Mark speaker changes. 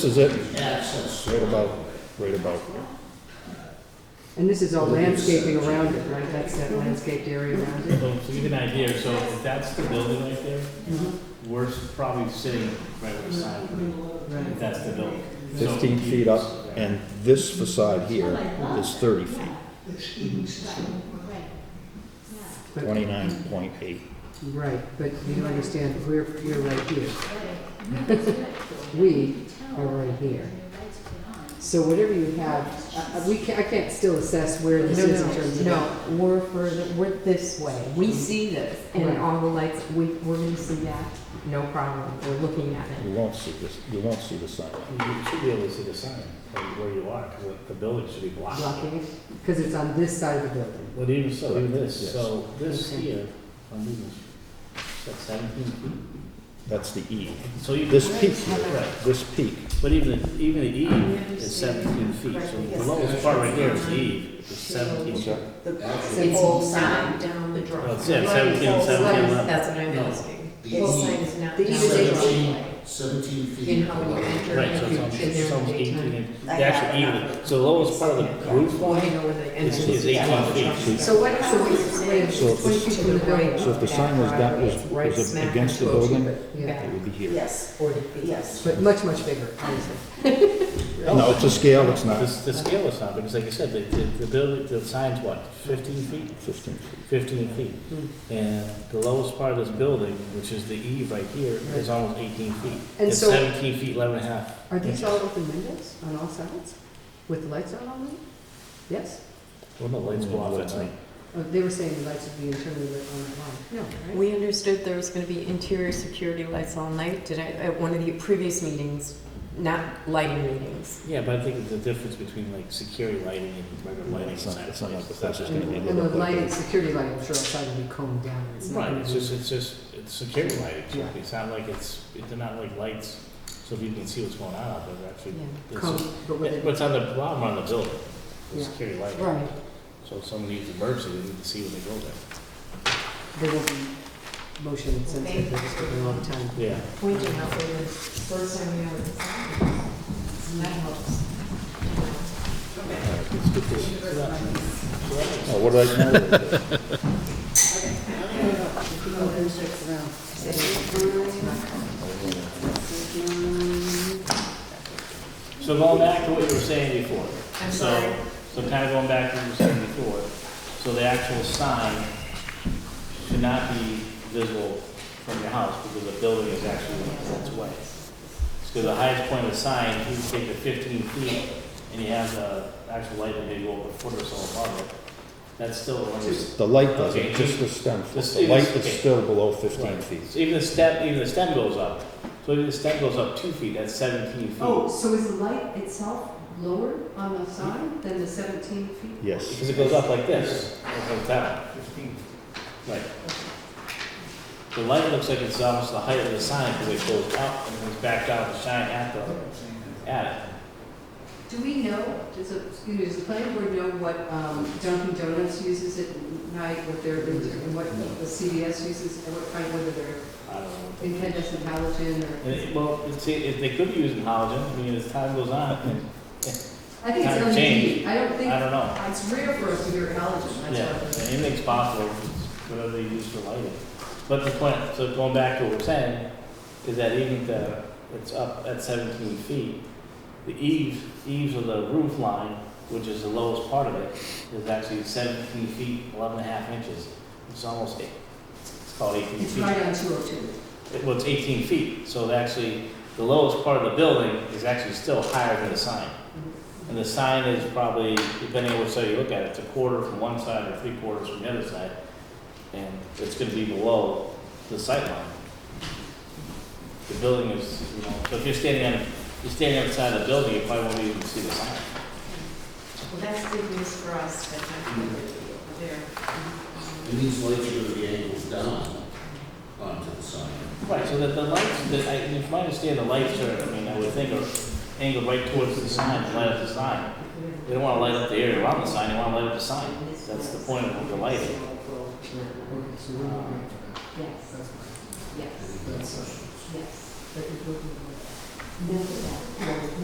Speaker 1: This is it,
Speaker 2: access.
Speaker 1: right about, right about here.
Speaker 3: And this is all landscaping around it, right? That's that landscaped area around it?
Speaker 4: So to give you an idea, so if that's the building right there, we're probably sitting right where the sign would be, if that's the building. So-
Speaker 1: 15 feet up, and this facade here is 30 feet,
Speaker 3: But-
Speaker 1: 29.8.
Speaker 3: Right, but you don't understand, we're, we're right here. We are right here. So whatever you have, I- I- we can't, I can't still assess where this
Speaker 5: No,
Speaker 3: is in terms of.
Speaker 5: no, no, we're further, we're this way. We see this
Speaker 3: Right.
Speaker 5: and all the lights, we, we're gonna see that, no problem. We're looking at it.
Speaker 1: You won't see this, you won't see the sign.
Speaker 4: You should be able to see the sign from where you are, because the building should be blocked.
Speaker 3: Blocking it, because it's on this side of the building.
Speaker 4: But even so, even this,
Speaker 1: Yes.
Speaker 4: so this
Speaker 3: Okay.
Speaker 4: here, on this, that's seventeen feet.
Speaker 1: That's the E.
Speaker 4: So you.
Speaker 1: This peak here,
Speaker 4: Right,
Speaker 1: this peak,
Speaker 4: but even, the- even the eve is seventeen feet, so the lowest part right here is the eve, is seventeen.
Speaker 1: Okay.
Speaker 3: It's
Speaker 5: not down the drawing.
Speaker 4: Well, it's yeah, 17, 17, eleven.
Speaker 5: That's what I'm
Speaker 4: No.
Speaker 5: asking.
Speaker 2: The
Speaker 5: Full sign
Speaker 2: E,
Speaker 5: is not
Speaker 3: The
Speaker 5: down
Speaker 3: E is
Speaker 5: the
Speaker 2: eighteen.
Speaker 5: driveway.
Speaker 2: seventeen feet.
Speaker 5: In how you enter.
Speaker 4: Right, so
Speaker 5: if you-
Speaker 4: it's
Speaker 5: in there
Speaker 4: almost, it's almost
Speaker 5: in the
Speaker 4: eighteen,
Speaker 5: daytime.
Speaker 4: in- the actual even, so the lowest part of the roof
Speaker 5: Well, I
Speaker 4: line
Speaker 5: know where the
Speaker 4: is,
Speaker 5: entrance
Speaker 4: is
Speaker 5: is.
Speaker 4: eighteen feet.
Speaker 3: So what, so what you're saying is
Speaker 1: So if
Speaker 3: twenty
Speaker 1: it's-
Speaker 3: feet from the building.
Speaker 1: so if the sign was that, was, was against the building,
Speaker 3: Yeah,
Speaker 1: it would be here.
Speaker 6: Yes,
Speaker 3: forty feet.
Speaker 6: yes.
Speaker 3: But much, much bigger, obviously.
Speaker 1: No, it's a scale, it's
Speaker 4: The,
Speaker 1: not
Speaker 4: the scale is not, because like you said, the, the, the building, the sign's what, fifteen feet,
Speaker 1: 15 feet.
Speaker 4: fifteen feet?
Speaker 3: Hmm.
Speaker 4: And the lowest part of this building, which is the eve right here, is almost eighteen feet.
Speaker 3: And
Speaker 4: It's
Speaker 3: so-
Speaker 4: seventeen feet, eleven and a half.
Speaker 3: Are these all open windows on all sides with the lights on all night? Yes?
Speaker 4: Well, the lights go off at night.
Speaker 3: Oh, They were saying the lights would be internally lit on the line. No, right?
Speaker 5: We understood there was gonna be interior security lights all night. Did I, at one of the previous meetings, not lighting meetings.
Speaker 4: Yeah, but I think the difference between like security lighting and regular lighting
Speaker 1: It's not-
Speaker 4: inside of
Speaker 1: it's not like the
Speaker 4: places, that's
Speaker 1: places
Speaker 4: not-
Speaker 1: gonna be
Speaker 3: And the lighting, security lighting, I'm sure outside will be combed down. It's not
Speaker 4: Right,
Speaker 3: gonna
Speaker 4: it's
Speaker 3: be-
Speaker 4: just, it's just, it's security lighting, so
Speaker 3: Yeah.
Speaker 4: it's not like it's, it- they're not like lights, so people can see what's going on out there, actually.
Speaker 5: Yeah.
Speaker 4: it's just-
Speaker 3: Combed, but with
Speaker 4: But
Speaker 3: it,
Speaker 4: it's on the bottom on the building, the
Speaker 3: Yeah.
Speaker 4: security lighting.
Speaker 3: right,
Speaker 4: So if someone needs emergency, they need to see when they go there.
Speaker 3: there will be motion sensitive, they're just looking all the time.
Speaker 4: Yeah.
Speaker 5: We did help with this first time we had it. And that helps.
Speaker 1: Oh, what did I,
Speaker 4: So going back to what you were saying before.
Speaker 5: I'm
Speaker 4: So-
Speaker 5: sorry.
Speaker 4: So kind of going back to what you were saying before, so the actual sign should not be visible from your house because the building is actually in its way. So the highest point of the sign, you can take the fifteen feet and you have the actual light that maybe over a foot or so above it. That's still,
Speaker 1: the light
Speaker 4: Okay.
Speaker 1: doesn't, just the stem,
Speaker 4: The
Speaker 1: the light is
Speaker 4: okay.
Speaker 1: still below 15
Speaker 4: Right.
Speaker 1: feet.
Speaker 4: So even the stem, even the stem goes up. So even the stem goes up two feet, that's seventeen feet.
Speaker 6: Oh, so is the light itself lower on the sign than the seventeen feet?
Speaker 1: Yes,
Speaker 4: Because it goes up like this, it goes down. Right. The light looks like it's almost the height of the sign, because it goes up and goes back down to shine at the, at
Speaker 6: Do we know, does, the- excuse me, does the planning board know what um, Dunkin' Donuts uses at night, what their, and what the CVS uses, and what, kind- whether they're
Speaker 4: it. I don't know.
Speaker 6: incandescent halogen or?
Speaker 4: And it, well, it's, it, they could be using halogen, I mean, as time goes on, and
Speaker 6: I think
Speaker 4: Kind
Speaker 6: it's
Speaker 4: of
Speaker 6: LED.
Speaker 4: change.
Speaker 6: I don't
Speaker 4: I
Speaker 6: think,
Speaker 4: don't know.
Speaker 6: it's rare for us to hear halogen, that's
Speaker 4: Yeah,
Speaker 6: what I'm saying.
Speaker 4: anything's possible, whatever they use for lighting. But the point, so going back to what we're saying, is that even the, it's up at seventeen feet, the eaves, eaves of the roof line, which is the lowest part of it, is actually seventeen feet, eleven and a half inches. It's almost eight, it's called eighteen
Speaker 6: It's
Speaker 4: feet.
Speaker 6: right on two oh two.
Speaker 4: It- Well, it's eighteen feet, so it actually, the lowest part of the building is actually still higher than the sign. And the sign is probably, depending on which side you look at it, it's a quarter from one side or three quarters from the other side. And it's gonna be below the sight line. The building is, you know, so if you're standing on, if you're standing outside the building, you probably won't even see the sign.
Speaker 5: Well, that's good news for us, that they're
Speaker 2: And these lights are gonna be angled down onto the sign.
Speaker 4: Right, so that the lights, that I, if I understand, the lights are, I mean, I would think are angled right towards the sign, to light up the sign. They don't wanna light up the area around the sign, they wanna light up the sign. That's the point of the lighting.
Speaker 5: Yes, yes, yes. No, no.